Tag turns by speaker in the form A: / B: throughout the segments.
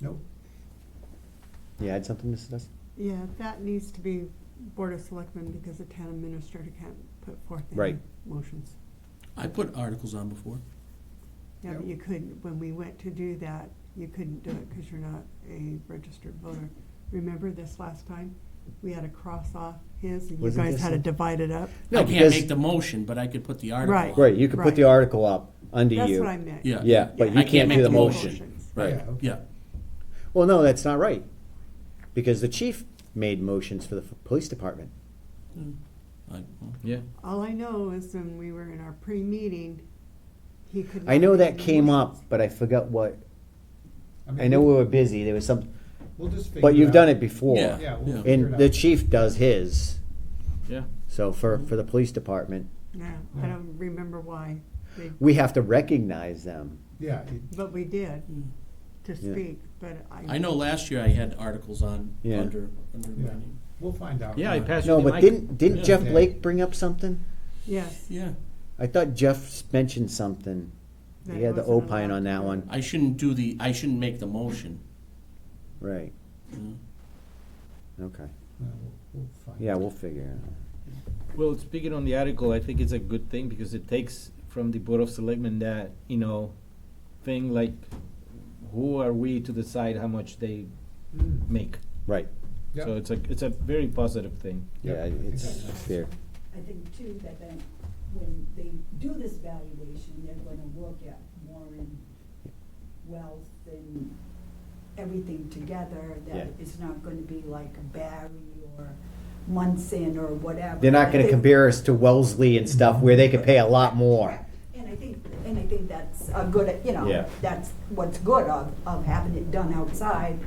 A: Nope.
B: You had something, Mrs. Dusty?
C: Yeah, that needs to be Board of Selectmen because the town administrator can't put forth any
B: Right.
C: motions.
D: I put articles on before.
C: Yeah, but you couldn't, when we went to do that, you couldn't do it because you're not a registered voter. Remember this last time? We had to cross off his and you
B: Wasn't
C: guys
B: this
C: had to
B: the-
C: divide it up.
B: No,
D: I can't
B: because-
D: make the motion, but I could put the article on.
C: Right.
B: Right, you could put the
C: Right.
B: article up under
C: That's what I
B: you.
C: meant.
D: Yeah.
B: Yeah, but
C: I
B: you
C: can't
B: can't
D: make
B: do the
D: the
B: motion.
D: Right,
A: Yeah, okay.
D: yeah.
B: Well, no, that's not right. Because the chief made motions for the f- police department.
D: I- well,
E: Yeah.
C: All I know is when we were in our pre-meeting, he could.
B: I
C: not
B: know
C: make
B: that
C: any
B: came up,
C: motions.
B: but I forgot what, I
A: mean,
B: know we
A: we'll-
B: were busy, there was some,
A: We'll just figure it out.
B: but you've done it before.
A: Yeah,
D: Yeah.
A: we'll figure
B: And
A: it
B: the
A: out.
B: chief does his,
E: Yeah.
B: so for, for the police department,
C: Yeah, I don't remember why, they-
B: we have to recognize them.
A: Yeah, it-
C: but we did to
B: Hmm. Yeah.
C: speak, but I.
D: I know last year I had articles on
B: Yeah.
D: under, under my
A: Yeah.
D: name.
A: we'll find out. Uh,
E: Yeah, I passed
B: Uh, No,
E: you the
B: but
E: mic.
B: didn't, didn't Jeff
A: Yeah.
B: Blake bring up something?
C: Yes.
D: Yeah,
B: I thought Jeff mentioned something.
C: that
B: He had the
C: wasn't
B: opine
C: allowed
B: on
C: to
B: that
C: do
B: one,
D: I shouldn't do the, I shouldn't make the motion.
B: right,
D: you know.
B: okay.
A: Uh, we'll- we'll find
B: Yeah,
A: out.
B: we'll figure it out.
E: Well, speaking on the article, I think it's a good thing because it takes from the Board of Selectmen that, you know, thing like, who are we to decide how much they
A: Mm,
E: make?
B: Right,
A: yeah,
E: So it's a, it's a very positive thing.
A: yeah,
B: yeah,
A: I think
B: it's
A: that's-
B: fair.
F: I think too, that then, when they do this valuation, they're gonna look at Warren wealth and everything together,
B: Yeah.
F: that it's not gonna be like a Barry or Munson or whatever.
B: They're not gonna
F: They-
B: compare us to Wellesley and stuff where they could pay a lot more.
F: Correct. And I think, and I think that's a good, you know,
B: Yeah.
F: that's what's good of, of having it done outside,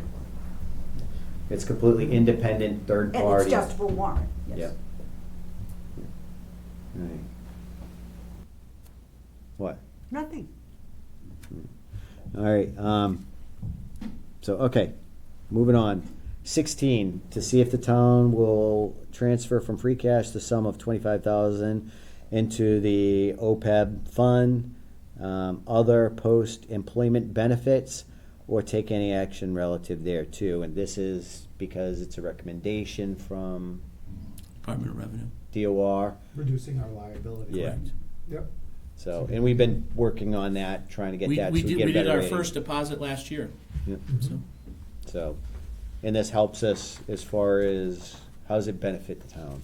B: It's completely independent, third
F: and it's
B: party.
F: just for Warren, yes.
B: Yep. Right. What?
C: Nothing.
B: All right, um, so, okay, moving on. Sixteen, to see if the town will transfer from free cash the sum of twenty-five thousand into the OPEB fund, um, other post-employment benefits, or take any action relative thereto. And this is because it's a recommendation from
D: Department of Revenue.
B: DOR,
A: Reducing our liability.
B: Yeah.
D: Correct.
A: Yep,
B: so, and we've been working on that, trying to get
D: We,
B: that.
D: we
B: so
D: did,
B: get a
D: we did
B: better
D: our
B: rating.
D: first deposit last year,
B: Yep.
D: so,
B: So, and this helps us as far as, how does it benefit the town?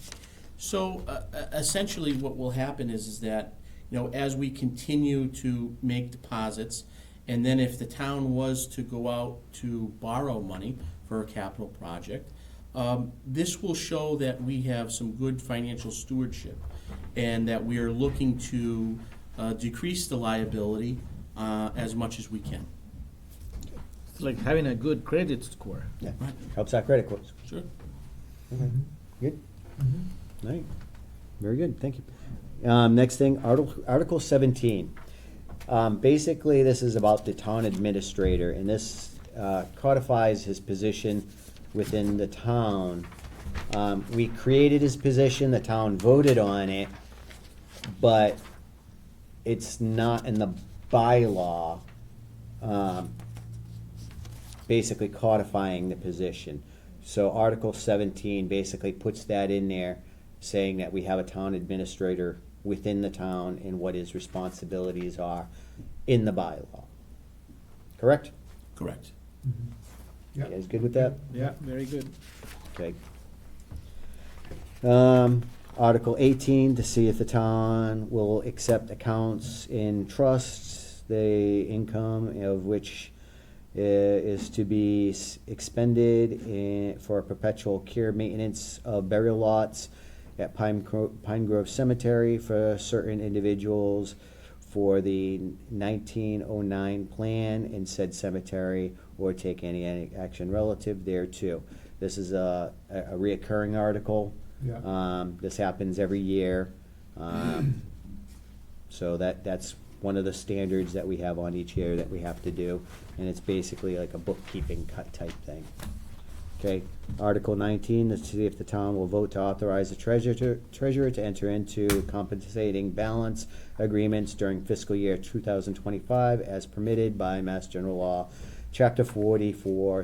D: So uh, uh, essentially, what will happen is, is that, you know, as we continue to make deposits, and then if the town was to go out to borrow money for a capital project, um, this will show that we have some good financial stewardship and that we are looking to uh, decrease the liability uh, as much as we can.
E: It's like having a good credit score.
B: Yeah.
D: Right.
B: Helps our credit scores.
D: Sure.
B: Good? Mm-hmm. All right, very good, thank you. Um, next thing, Article, Article seventeen. Um, basically, this is about the town administrator, and this, uh, codifies his position within the town. Um, we created his position, the town voted on it, but it's not in the bylaw, um, basically codifying the position. So Article seventeen basically puts that in there, saying that we have a town administrator within the town and what his responsibilities are in the bylaw. Correct?
D: Correct.
B: You
A: yep.
B: guys good with that?
A: Yeah.
E: Very good.
B: Okay. Um, Article eighteen, to see if the town will accept accounts in trusts, the income of which i- is to be s- expended in, for perpetual care maintenance of burial lots at Pine Gro- Pine Grove Cemetery for certain individuals for the nineteen oh nine plan in said cemetery or take any, any action relative thereto. This is a, a a reoccurring article.
A: Yeah.
B: Um, this happens every year. Um, so that, that's one of the standards that we have on each year that we have to do, and it's basically like a bookkeeping cut type thing. Okay, Article nineteen, to see if the town will vote to authorize the treasurer, to- treasurer to enter into compensating balance agreements during fiscal year two thousand twenty-five as permitted by Mass General Law, chapter forty for